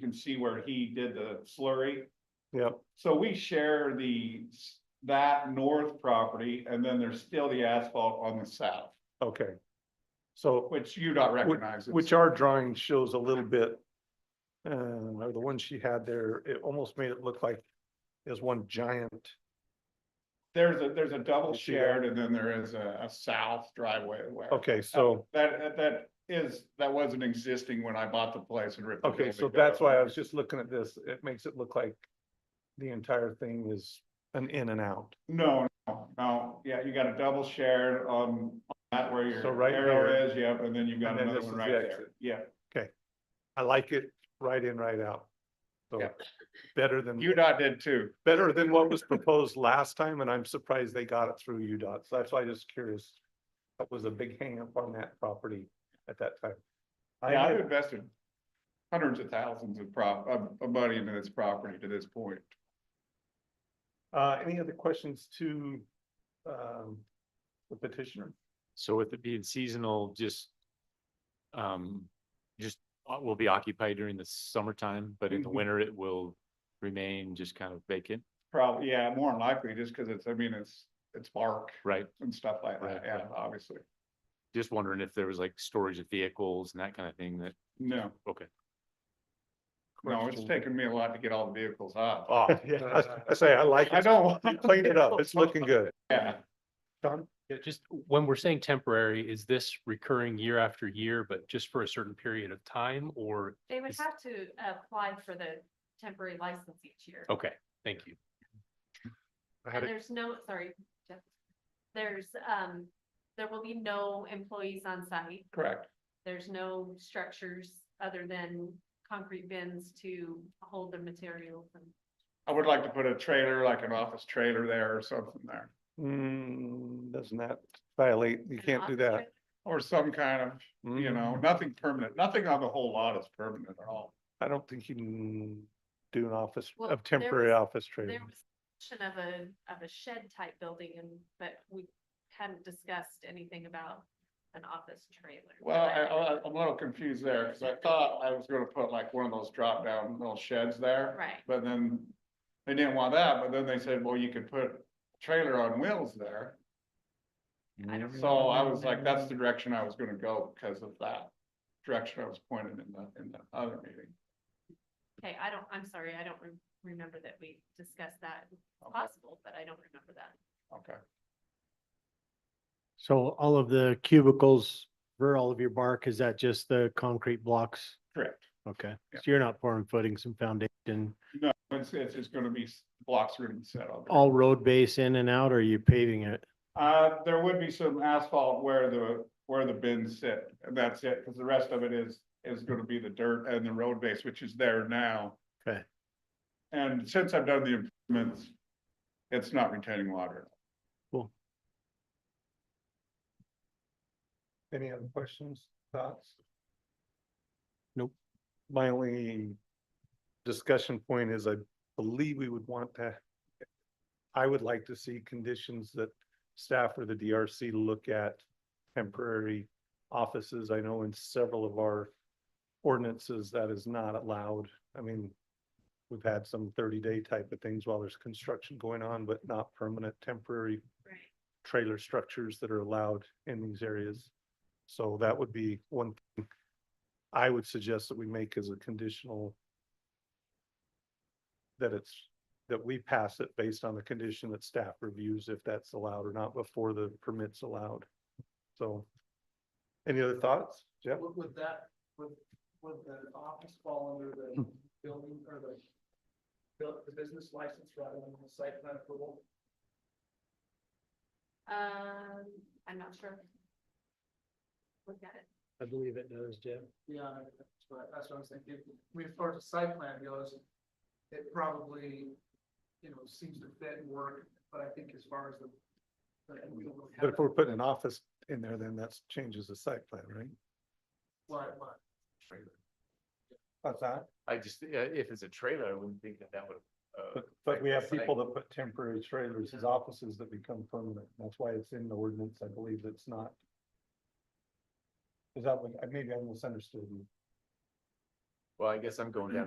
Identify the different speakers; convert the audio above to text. Speaker 1: can see where he did the slurry.
Speaker 2: Yep,
Speaker 1: So we share the, s- that north property, and then there's still the asphalt on the south,
Speaker 2: okay. So,
Speaker 1: which you don't recognize.
Speaker 2: which our drawing shows a little bit. Um, or the one she had there, it almost made it look like there's one giant,
Speaker 1: There's a, there's a double
Speaker 2: You see that?
Speaker 1: shared, and then there is a, a south driveway where.
Speaker 2: okay, so.
Speaker 1: That, that is, that wasn't existing when I bought the place and ripped. the
Speaker 2: Okay,
Speaker 1: building
Speaker 2: so that's why I
Speaker 1: down.
Speaker 2: was just looking at this. It makes it look like the entire thing is an in and out.
Speaker 1: No, no, no, yeah, you got a double shared on on that where
Speaker 2: So
Speaker 1: your
Speaker 2: right
Speaker 1: arrow
Speaker 2: here.
Speaker 1: is, yep, and then you've got
Speaker 2: And then
Speaker 1: another
Speaker 2: this
Speaker 1: one
Speaker 2: is
Speaker 1: right
Speaker 2: the
Speaker 1: there,
Speaker 2: exit.
Speaker 1: yeah.
Speaker 2: I like it right in, right out. So
Speaker 1: Yeah.
Speaker 2: better than,
Speaker 1: UDOT did too.
Speaker 2: better than what was proposed last time, and I'm surprised they got it through UDOT. So that's why I'm just curious. That was a big hang up on that property at that time. I
Speaker 1: Yeah, I've
Speaker 2: had,
Speaker 1: invested hundreds of thousands of prop, of, of money into this property to this point.
Speaker 2: uh, any other questions to, um, the petitioner?
Speaker 3: So with it being seasonal, just um, just uh, will be occupied during the summertime, but in the
Speaker 1: Mhm.
Speaker 3: winter it will remain just kind of vacant,
Speaker 1: Probably, yeah, more than likely, just because it's, I mean, it's, it's bark
Speaker 3: right?
Speaker 1: and stuff like that,
Speaker 3: Right,
Speaker 1: yeah,
Speaker 3: right.
Speaker 1: obviously.
Speaker 3: Just wondering if there was like storage of vehicles and that kind of thing that,
Speaker 1: No,
Speaker 3: okay.
Speaker 1: no, it's
Speaker 2: Question.
Speaker 1: taken me a lot to get all the vehicles out.
Speaker 3: Oh,
Speaker 2: Yeah, I- I say, I like
Speaker 1: I
Speaker 2: it.
Speaker 1: don't,
Speaker 2: You cleaned it up. It's looking good.
Speaker 1: yeah,
Speaker 2: Don?
Speaker 4: Yeah, just when we're saying temporary, is this recurring year after year, but just for a certain period of time or?
Speaker 5: They would
Speaker 4: Is-
Speaker 5: have to apply for the temporary license each year.
Speaker 4: Okay, thank you.
Speaker 2: I had
Speaker 5: And
Speaker 2: Oh, it.
Speaker 5: there's no, sorry, Jeff. There's, um, there will be no employees on site.
Speaker 1: correct.
Speaker 5: There's no structures other than concrete bins to hold the materials. and-
Speaker 1: I would like to put a trailer, like an office trailer there or something there,
Speaker 2: Mm, doesn't that violate, you can't do that.
Speaker 1: or some kind of, you know,
Speaker 3: Mm-hmm.
Speaker 2: Mm,
Speaker 1: nothing permanent, nothing on the whole lot is permanent at all.
Speaker 2: I don't think you can do an office,
Speaker 5: Well,
Speaker 2: of
Speaker 5: there
Speaker 2: temporary
Speaker 5: was-
Speaker 2: office trailer.
Speaker 5: There was mention of a, of a shed type building and, but we hadn't discussed anything about an office trailer.
Speaker 1: Well, I, I, I'm a little confused there, because I thought I was gonna put like one of those drop down little sheds there.
Speaker 5: Right.
Speaker 1: But then, they didn't want that, but then they said, well, you could put trailer on wheels there,
Speaker 5: I don't
Speaker 1: so I was like, that's the direction I was gonna go because of that. Direction I was pointed in the, in the other meeting.
Speaker 5: Okay, I don't, I'm sorry, I don't re- remember that we discussed that. It's possible, but I don't remember that.
Speaker 1: Okay,
Speaker 6: So all of the cubicles for all of your bark, is that just the concrete blocks?
Speaker 1: correct,
Speaker 6: Okay,
Speaker 1: Yeah.
Speaker 6: so you're not pouring footings and foundation,
Speaker 1: it's, it's, it's gonna be s- blocks are gonna be set up.
Speaker 6: all road base in and out, or are you paving it?
Speaker 1: Uh, there would be some asphalt where the, where the bins sit, and that's it, because the rest of it is, is gonna be the dirt and the road base, which is there now.
Speaker 6: Okay.
Speaker 1: And since I've done the improvements, it's not retaining water.
Speaker 2: Any other questions, thoughts?
Speaker 4: Nope.
Speaker 2: My only discussion point is I believe we would want to. I would like to see conditions that staff or the DRC look at temporary offices. I know in several of our ordinances that is not allowed. I mean, we've had some thirty day type of things while there's construction going on, but not permanent temporary
Speaker 5: Right.
Speaker 2: trailer structures that are allowed in these areas. So that would be one thing I would suggest that we make as a conditional that it's, that we pass it based on the condition that staff reviews if that's allowed or not before the permit's allowed. So any other thoughts, Jeff?
Speaker 7: Would, would that, would, would the office fall under the building or the buil- the business license rather than the site plan approval?
Speaker 5: Um, I'm not sure. Look at it.
Speaker 6: I believe it does, Jim.
Speaker 7: Yeah, that's what, that's what I was thinking. I mean, as far as the site plan goes, it probably, you know, seems to fit and work, but I think as far as the. the- we don't really have
Speaker 2: But if we're
Speaker 7: that-
Speaker 2: putting an office in there, then that's changes the site plan, right?
Speaker 7: What, what?
Speaker 2: That's that.
Speaker 3: I just, uh, if it's a trailer, I wouldn't think that that would. uh,
Speaker 2: But, but we have
Speaker 3: Site.
Speaker 2: people that put temporary trailers as offices that become permanent. That's why it's in the ordinance. I believe that's not. Is that what, maybe I misunderstood you.
Speaker 3: Well, I guess I'm going down